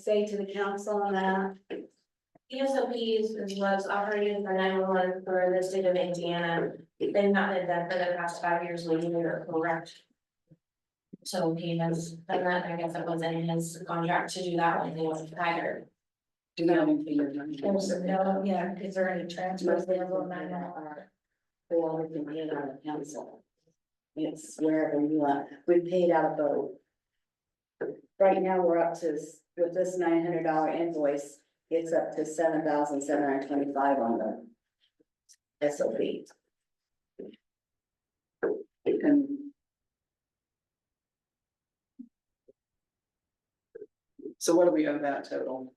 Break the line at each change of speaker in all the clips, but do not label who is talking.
say to the council on that?
ESOPs was operated for nine one one for the state of Indiana. They've not been done for the past five years, we knew were correct. So he has done that, I guess it was in his contract to do that when he was hired.
Do that in figure. don't you?
no, yeah, is there any
Most of them are- They all have been paid out of council. It's wherever you are, we paid out of both. Right now, we're up to, s- with this nine hundred dollar invoice, it's up to seven thousand seven hundred twenty-five on the. S O B.
So what do we owe that total?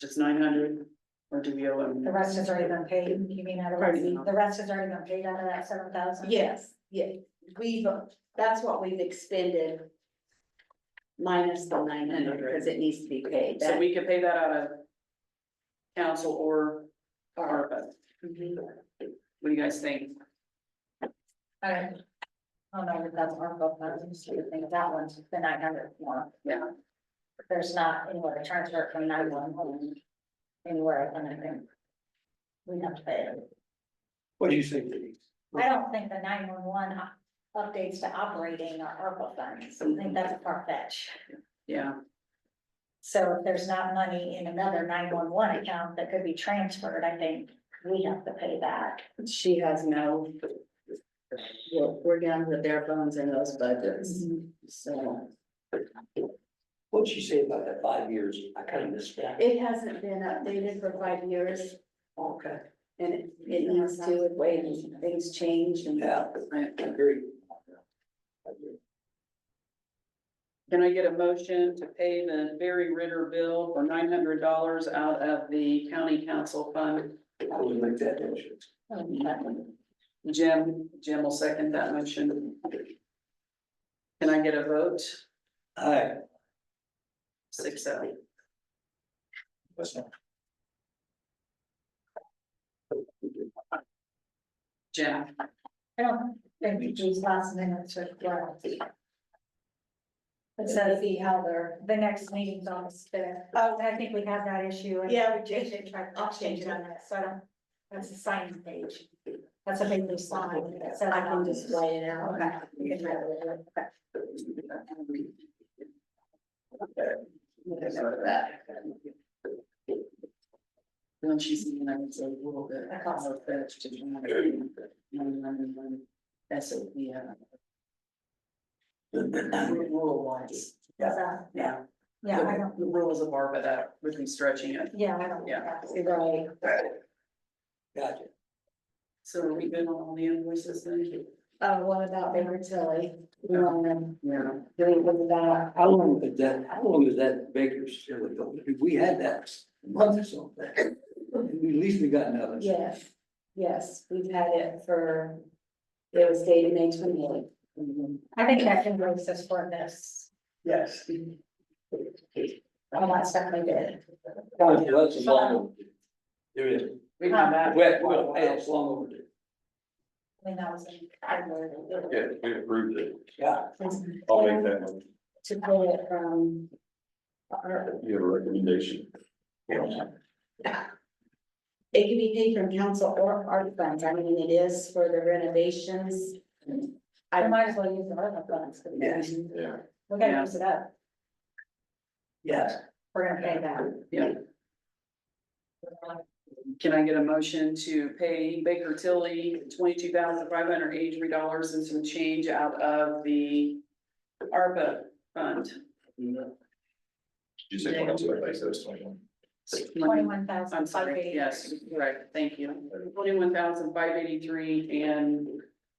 Just nine hundred, or do we owe them?
The rest has already been paid, you mean out of,
Pardon me?
the rest has already been paid out of that seven thousand?
Yes, yeah, we've, uh, that's what we've expended. Minus the nine hundred, because it needs to be paid.
So we could pay that out of council or ARPA, what do you guys think?
I don't know if that's our goal, I was just thinking that one's the nine hundred one.
Yeah.
There's not anywhere to transfer it from nine one one anywhere, I don't think. We have to pay it.
What do you think, Denise?
I don't think the nine one one updates to operating our ARPA funds, I think that's a far fetch.
Yeah,
So if there's not money in another nine one one account that could be transferred, I think we have to pay that.
She has no. We're, we're down to bare bones in those budgets, so
What'd she say about that five years? I kind of missed that.
it hasn't been updated for five years.
Okay,
And it, it needs to, with way things change and.
yeah,
I-
I agree. I agree.
Can I get a motion to pay the Barry Ritter bill for nine hundred dollars out of the county council fund?
I would make that motion.
Jim, Jim will second that motion. Can I get a vote?
Aye.
Six oh. Jim,
I don't think these last minutes are correct. It says the other, the next meeting's on the fifth. Oh, I think we have that issue. and
Yeah, we
They should try
I'll
to
change
change
it.
it on that, so I don't, that's a sign page. That's a big new sign. that says
I can
on it.
just write it out.
Okay. you can write it over. Okay.
don't you see that it's a little bit of a fetch to try to- That's a, yeah. Rule wise,
So,
yeah.
Yeah, I don't,
The rules of ARPA that would be stretching it.
yeah, I don't.
Yeah.
that's-
Right,
Gotcha.
So are we good on all the invoices then?
uh, what about Baker Tilly? You wanna,
Yeah.
do with that?
How long did that, how long was that Baker's still ago? We had that a month or so. back. At least we got another.
Yes, yes, we've had it for, it was dated May twenty eighth.
I think that invoice is for this,
Yes.
Oh,
all that stuff we did.
That's a long overdue. There is.
We've had that.
Well, well, hey, it's long overdue.
I mean, that was. I learned.
Yeah, we approved it.
Yeah.
I'll make that one.
To pull it from. Or
You have a recommendation.
it can be paid from council or art funds, I mean, it is for the renovations.
I
I,
might as well use the ARPA funds. for the-
Yes.
Yeah.
We're gonna use it up,
Yes.
we're gonna pay that.
Yeah. Can I get a motion to pay Baker Tilly twenty-two thousand five hundred eighty-three dollars and some change out of the ARPA fund?
Did you say twenty-two? I said it's twenty-one.
Twenty-one thousand.
I'm sorry, yes, correct, thank you. Twenty-one thousand five eighty-three and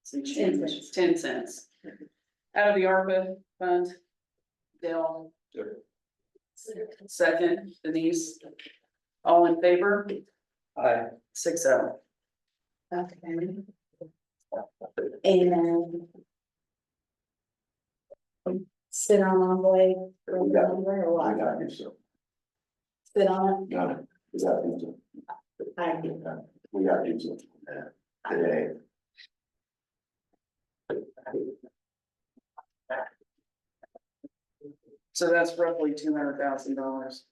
some change,
cents.
ten cents. Out of the ARPA fund. Dale, second, Denise. All in favor,
Aye.
six oh.
okay. And. Sit on envoy,
We got it.
remember or
I
what?
got you, so,
Sit on,
got it. We got you, so.
it? I,
We got you, so. Yeah. Today.
So that's roughly two hundred thousand dollars.